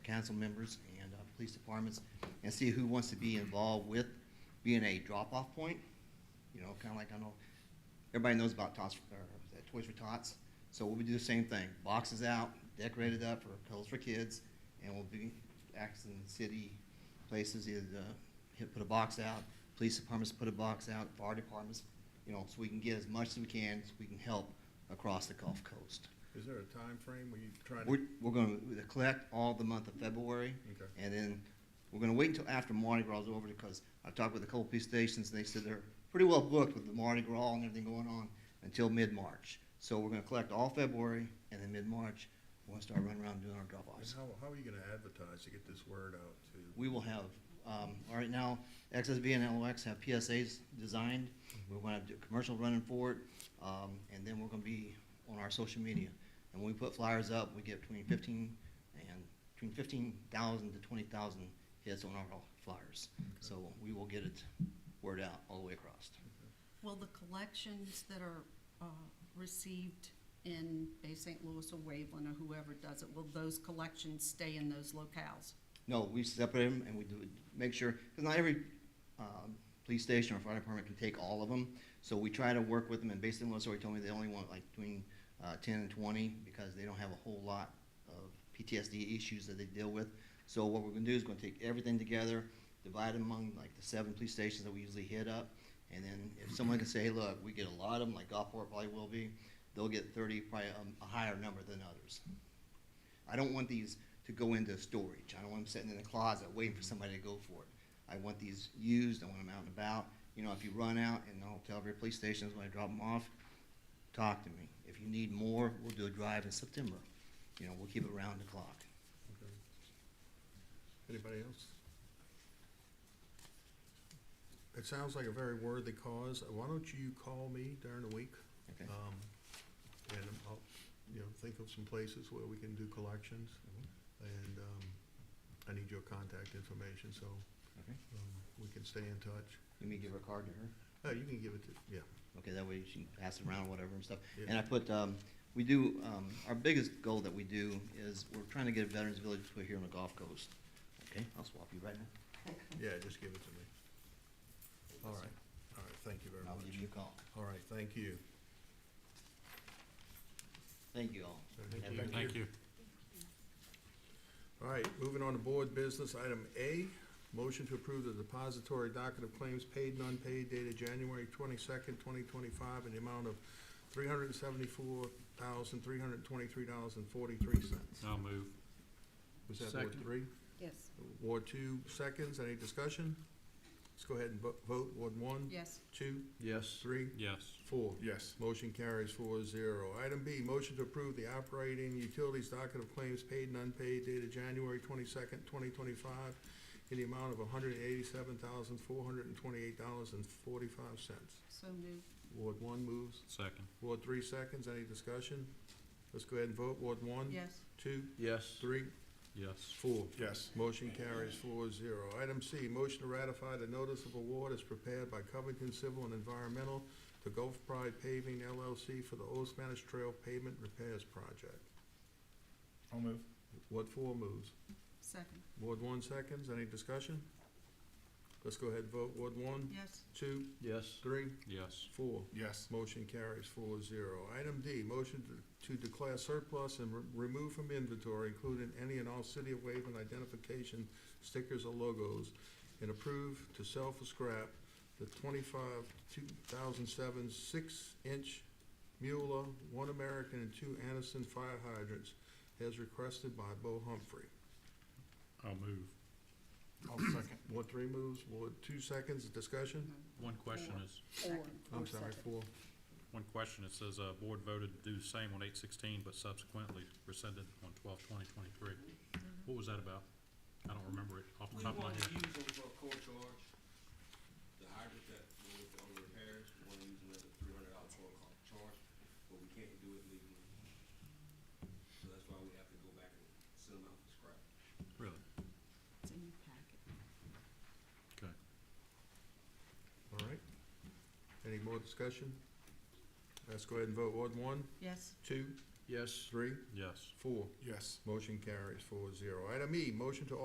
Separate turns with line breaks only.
council members and uh, police departments and see who wants to be involved with being a drop-off point. You know, kind of like, I know, everybody knows about Tots, or is that Toys for Tots. So we'll do the same thing, boxes out, decorated up for Cuddles for Kids, and we'll be accessing city places, either the- hit, put a box out, police departments put a box out, fire departments, you know, so we can get as much as we can, so we can help across the Gulf Coast.
Is there a time frame when you try
We're,
to?
we're gonna collect all the month of February,
Okay.
and then we're gonna wait until after Mardi Gras is over, because I've talked with a couple of police stations, and they said they're pretty well booked with the Mardi Gras and everything going on until mid-March. So we're gonna collect all February, and then mid-March, we're gonna start running around doing our
And
drop-offs.
how, how are you gonna advertise to get this word out to?
We will have, um, all right now, XSB and LOX have PSAs designed. We're gonna do commercial running for it, um, and then we're gonna be on our social media. And when we put flyers up, we get between fifteen and, between fifteen thousand to twenty thousand hits on our flyers. So we will get it word out all the way across.
Will the collections that are uh, received in Bay St. Louis or Waveland or whoever does it, will those collections stay in those locales?
No, we separate them and we do, make sure, because not every, um, police station or fire department can take all of them. So we try to work with them, and based on what somebody told me, they only want like between, uh, ten and twenty, because they don't have a whole lot of PTSD issues that they deal with. So what we're gonna do is gonna take everything together, divide them among like the seven police stations that we usually hit up. And then if someone can say, look, we get a lot of them, like Gulfport probably will be, they'll get thirty, probably um, a, a higher number than others. I don't want these to go into storage. I don't want them sitting in a closet waiting for somebody to go for it. I want these used, I want them out and about. You know, if you run out and I'll tell every police station when I drop them off, talk to me. If you need more, we'll do a drive in September. You know, we'll keep it around the clock.
Okay. Anybody else? It sounds like a very worthy cause. Why don't you call me during the week?
Okay?
Um, and I'll, you know, think of some places where we can do collections. And, um, I need your contact information, so,
Okay.
um, we can stay in touch.
Let me give her a card to her.
Oh, you can give it to, yeah.
Okay, that way she can pass it around, whatever and stuff.
Yeah.
And I put, um, we do, um, our biggest goal that we do is we're trying to get a veterans village put here on the Gulf Coast. Okay, I'll swap you right now.
Yeah, just give it to me. All right, all right, thank you very
I'll give you
much.
a call.
All right, thank you.
Thank you all.
Thank
Have a
you.
good night.
Thank you.
All right, moving on to board business, item A, motion to approve the depository docket of claims paid and unpaid dated January twenty-second, twenty twenty-five in the amount of three hundred and seventy-four thousand, three hundred and twenty-three dollars and forty-three cents.
I'll move.
Was that Ward
Second.
three?
Yes.
Ward two seconds, any discussion? Let's go ahead and vo- vote, Ward one,
Yes.
two,
Yes.
three,
Yes.
four.
Yes.
Motion carries four zero. Item B, motion to approve the operating utilities docket of claims paid and unpaid dated January twenty-second, twenty twenty-five in the amount of hundred and eighty-seven thousand, four hundred and twenty-eight dollars and forty-five cents.
So moved.
Ward one moves.
Second.
Ward three seconds. Any discussion? Let's go ahead and vote. Ward one,
Yes.
two,
Yes.
three,
Yes.
four.
Yes.
Motion carries four zero. Item C, motion to ratify the notice of award as prepared by Covington Civil and Environmental to Gulf Pride Paving LLC for the Old Spanish Trail Pavement Repairs Project.
I'll move.
Ward four moves.
Second.
Ward one seconds. Any discussion? Let's go ahead and vote. Ward one,
Yes.
two,
Yes.
three,
Yes.
four.
Yes.
Motion carries four zero. Item D, motion to- to declare surplus and re- remove from inventory, including any and all City of Waveland identification stickers or logos, and approve to sell for scrap the twenty-five, two thousand seven, six-inch Mueller, one American and two Anderson fire hydrants, as requested by Bo Humphrey.
I'll move.
I'll second.
Ward three moves, Ward two seconds, discussion?
One question is,
Second.
I'm sorry, four.
one question, it says, uh, board voted to do the same on eight sixteen, but subsequently rescinded on twelve twenty twenty-three. What was that about? I don't remember it off the
We
top of my
wanted to
head.
use them for a court charge, the hydrant that we were on the repairs, we wanna use them as a three hundred dollar court ca- charge, but we can't do it legally. So that's why we have to go back and send them out for scrap.
Really?
It's in your packet.
Okay.
All right. Any more discussion? Let's go ahead and vote. Ward one,
Yes.
two, Yes. Three,
Yes.
four.
Yes.
Motion carries four zero. Item E, motion to